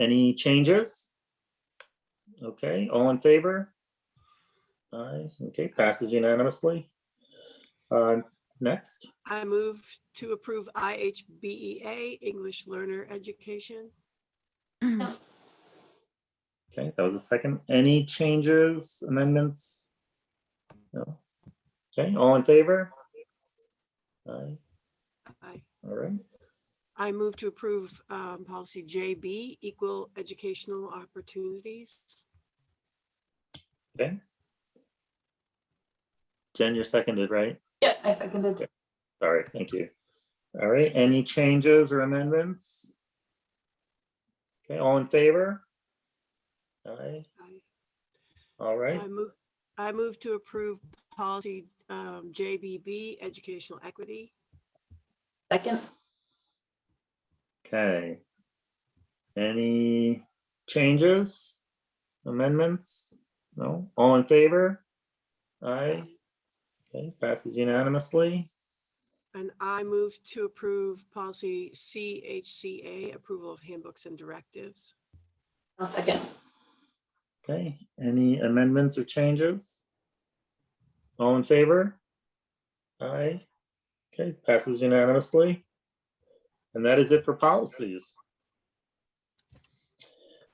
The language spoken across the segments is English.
Any changes? Okay, all in favor? Aye, okay, passes unanimously. Uh, Next, I move to approve IHBEA, E English Learner Education. okay, that was a second. Any changes, amendments? No. Okay, all in favor? Aye, I, all right, I move to approve um, policy JB, Equal Educational Opportunities. okay. Jen, you're seconded, right? Yeah, I seconded. Sorry, thank you. All right, any changes or amendments? Okay, all in favor? Aye, I- all right. I move, I move to approve policy um, JBB, Educational Equity. Second, Okay. Any changes, amendments? No? All in favor? Aye. Okay, passes unanimously. And I move to approve policy CHCA, Approval of Handbooks and Directives. I'll second. Okay, any amendments or changes? All in favor? Aye. Okay, passes unanimously. And that is it for policies.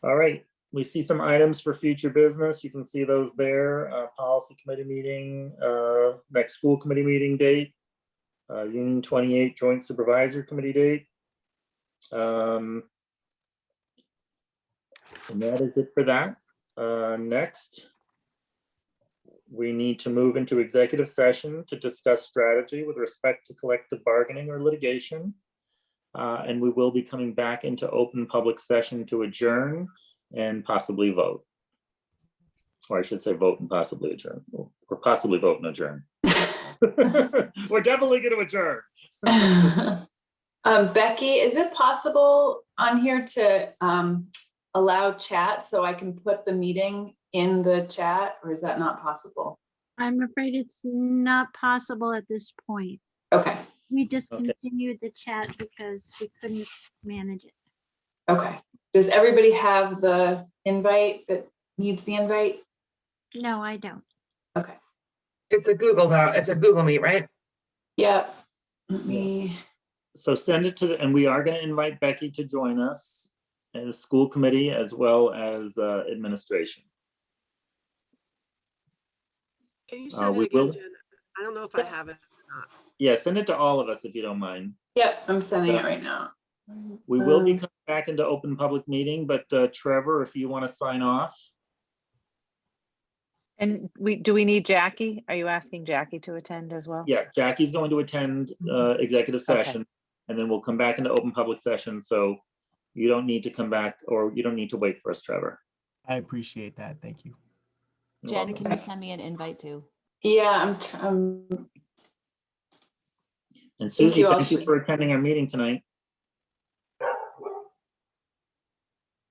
All right, we see some items for future business. You can see those there, uh, policy committee meeting, uh, next school committee meeting date, uh, Union twenty-eight joint supervisor committee date. Um, And that is it for that. Uh, Next, we need to move into executive session to discuss strategy with respect to collective bargaining or litigation. Uh, And we will be coming back into open public session to adjourn and possibly vote. Or I should say vote and possibly adjourn, or possibly vote and adjourn. We're definitely going to adjourn. Um, Becky, is it possible on here to, um, allow chat so I can put the meeting in the chat or is that not possible? I'm afraid it's not possible at this point. Okay, We discontinued the chat because we couldn't manage it. okay. Does everybody have the invite that needs the invite? No, I don't. Okay, It's a Google Doc, it's a Google Meet, right? yep. Let me, So send it to, the and we are going to invite Becky to join us and the school committee as well as uh, administration. Can you Uh, say that we will- again, Jen? I don't know if I have it. Yeah, send it to all of us if you don't mind. yep, I'm sending it right now. We will be Oh. Um, coming back into open public meeting, but uh, Trevor, if you want to sign off. And we, do we need Jackie? Are you asking Jackie to attend as well? Yeah, Jackie's going to attend Mm-hmm. uh, executive Okay. session and then we'll come back into open public session. So you don't need to come back or you don't need to wait for us, Trevor. I appreciate that. Thank you. You're Jen, welcome. can you send me an invite too? Yeah, I'm, tr- um, I'm, And Susie, you, thank you Ashley. for attending our meeting tonight.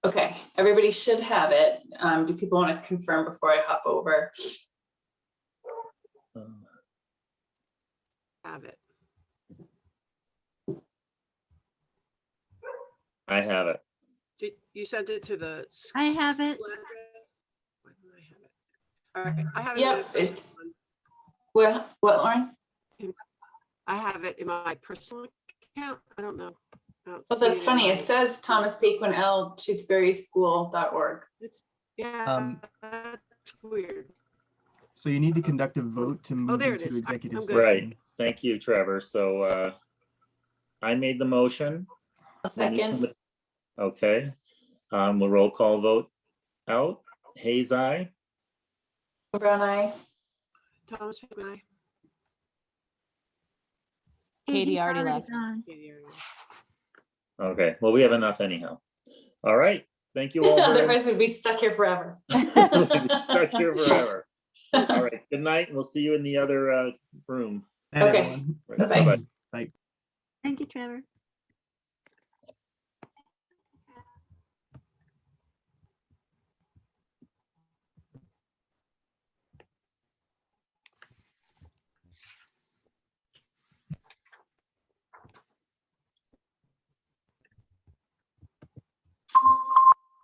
okay, everybody should have it. Um, do people want to confirm before I hop over? Um, Have it. I have it. Did- You sent it to the. s- I have it. school address? Why don't I have it? All right, I have it. in Yep, my personal it's- one. What, what, Lauren? I have it in my personal account. I don't know. I don't Well, see that's funny. in It my- says Thomas Paquin L. Tewksbury School.org. Yeah, Um, that's weird. So you need to conduct a vote to move Oh, there it into is. I- executive I'm session. good. Right. Thank you, Trevor. So uh, I made the motion. A We need second, somebody- Okay, um, we'll roll call vote out. Hayes, aye. Brown Eye. Thomas Pickman, I- Katie already left. gone. yeah, yeah, yeah. Okay, well, we have enough anyhow. All right, thank you all. very much. Otherwise we'd be stuck here forever. We'll be Stuck here forever. All right, good night. and We'll see you in the other uh, room. And Okay. everyone. Right, Bye-bye. bye-bye. Thank you, Trevor.